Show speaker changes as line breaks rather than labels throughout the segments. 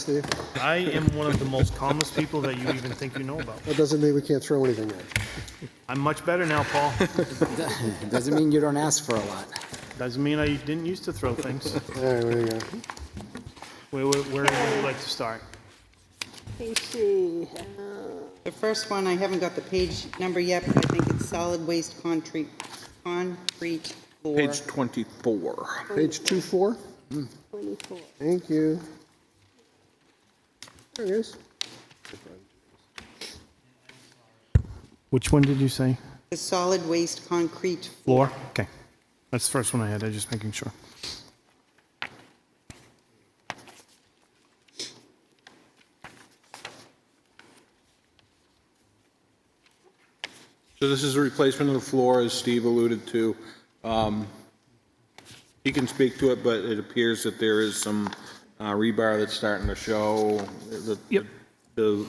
Steve?
I am one of the most calmest people that you even think you know about.
That doesn't mean we can't throw anything at you.
I'm much better now, Paul.
Doesn't mean you don't ask for a lot.
Doesn't mean I didn't used to throw things.
All right, where you go.
Where, where, where would you like to start?
Let me see. Uh,
The first one, I haven't got the page number yet, but I think it's solid waste concrete, concrete floor.
Page 24.
Page two four.
24.
Thank you. There it is.
Which one did you say?
The solid waste concrete,
Floor? Okay. That's the first one I had. I was just making sure.
So this is a replacement of the floor, as Steve alluded to. Um, He can speak to it, but it appears that there is some uh, rebar that's starting to show. that
Yep.
The,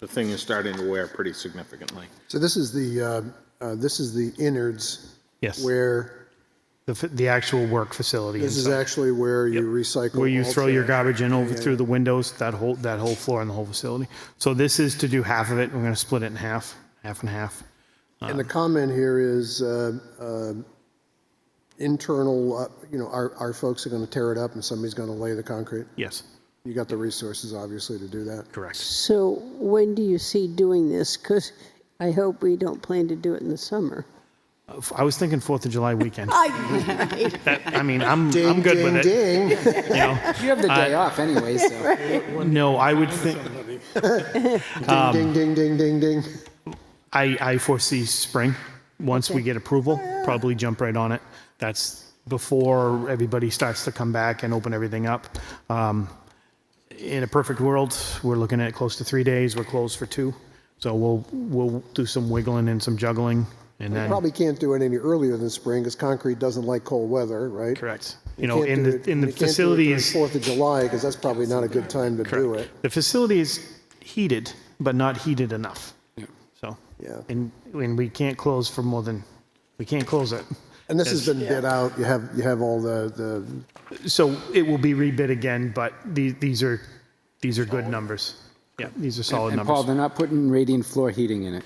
the thing is starting to wear pretty significantly.
So this is the, uh, uh, this is the innards.
Yes.
Where,
The, f- the actual work facility.
this is
inside.
actually where you recycle.
Where you
all
throw your
trash.
garbage in over through the windows, that whole, that whole floor and the whole facility. So this is to do half of it. We're going to split it in half, half and half.
And the comment here is uh, uh, internal, uh, you know, our, our folks are going to tear it up and somebody's going to lay the concrete.
Yes,
You got the resources, obviously, to do that.
correct.
So when do you see doing this? Because I hope we don't plan to do it in the summer.
Uh, f- I was thinking Fourth of July weekend.
I,
I mean, I'm, I'm good
ding,
with it.
ding, Ding.
You know?
You have the day off anyway, so.
No, I would think, Um,
Ding, ding, ding, ding, ding.
I, I foresee spring. Once we get approval, probably jump right on it. That's before everybody starts to come back and open everything up. Um, in a perfect world, we're looking at close to three days. We're closed for two. So we'll, we'll do some wiggling and some juggling and then,
Probably can't do it any earlier than spring because concrete doesn't like cold weather, right?
correct. You know, in the, in the
facility
facilities.
Fourth of July because that's probably not a good time to do it.
The facility is heated, but not heated enough. So.
Yeah.
And, and we can't close for more than, we can't close it.
And this has been bid out. You have, you have all the, the
So it will be rebid again, but the, these are, these are good numbers. Yeah, these are solid
And Paul,
numbers.
they're not putting radiant floor heating in it.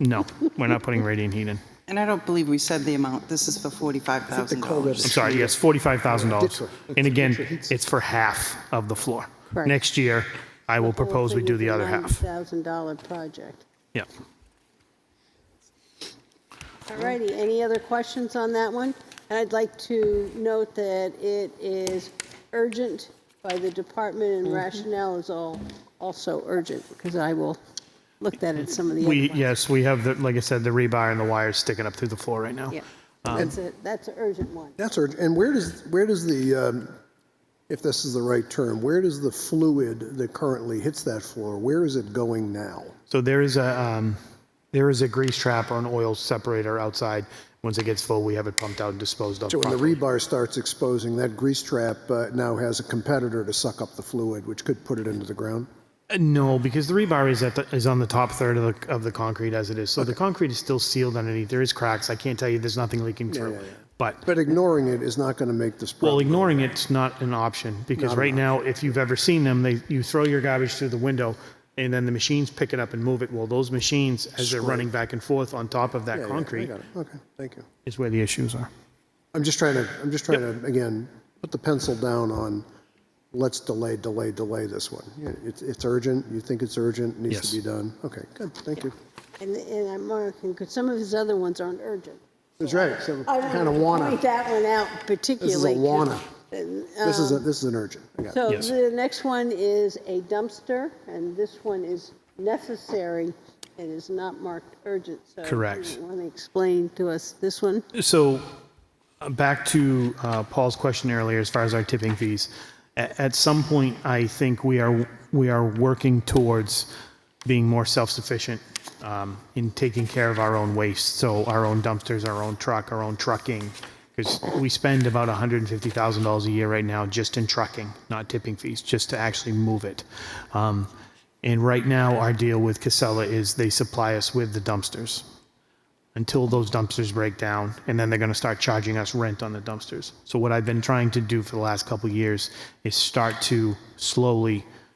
No, we're not putting radiant heat in.
and I don't believe we said the amount, this is for forty-five thousand
cold
dollars.
weather.
I'm sorry, yes, forty-five thousand dollars.
Ditto.
And again, it's for half of the floor.
Correct.
Next year, I will propose we do the other half.
$1,000 project.
Yeah.
All righty, any other questions on that one? And I'd like to note that it is urgent by the department and rationale is all, also urgent, because I will look that at some of the other
We,
ones.
yes, we have, the like I said, the rebar and the wires sticking up through the floor right now.
Yeah, that's
um,
a, that's an urgent one.
That's urgent. And where does, where does the, um, if this is the right term, where does the fluid that currently hits that floor, where is it going now?
So there is a, um, there is a grease trap or an oil separator outside. Once it gets full, we have it pumped out and disposed of.
So when the
properly.
rebar starts exposing, that grease trap uh, now has a competitor to suck up the fluid, which could put it into the ground?
Uh, No, because the rebar is at the, is on the top third of the, of the concrete as it is. So the concrete is still sealed underneath. There is cracks. I can't tell you there's nothing leaking through. But
But ignoring it is not going to make this
well,
problem.
ignoring it's not an option because right now, if you've ever seen them, they you throw your garbage through the window and then the machines pick it up and move it. Well, those machines, as they're running back and forth on top of that
Yeah, yeah, I
concrete,
got it. Okay, thank you.
is where the issues are.
I'm just trying to, I'm just trying to, again, put the pencil down on, let's delay, delay, delay this one. Yeah, It's, it's urgent, you think it's urgent, needs to
Yes.
be done. Okay, good, thank you.
And, and I'm marking, because some of his other ones aren't urgent.
That's right, so
I
kind of
want to
wanna,
point that one out particularly.
this is a
'cause-
wanna. This is, a
Um,
this is an urgent. I got it.
So
Yes.
the next one is a dumpster, and this one is necessary. It is not marked urgent, so.
Correct.
Want to explain to us this one?
So, uh, back to uh, Paul's question earlier, as far as our tipping fees. At, at some point, I think we are we are working towards being more self-sufficient um, in taking care of our own waste. So, our own dumpsters, our own truck, our own trucking, because we spend about one hundred and fifty thousand dollars a year right now just in trucking, not tipping fees, just to actually move it. Um, and right now, our deal with Casella is they supply us with the dumpsters until those dumpsters break down, and then they're going to start charging us rent on the dumpsters. So what I've been trying to do for the last couple of years is start to slowly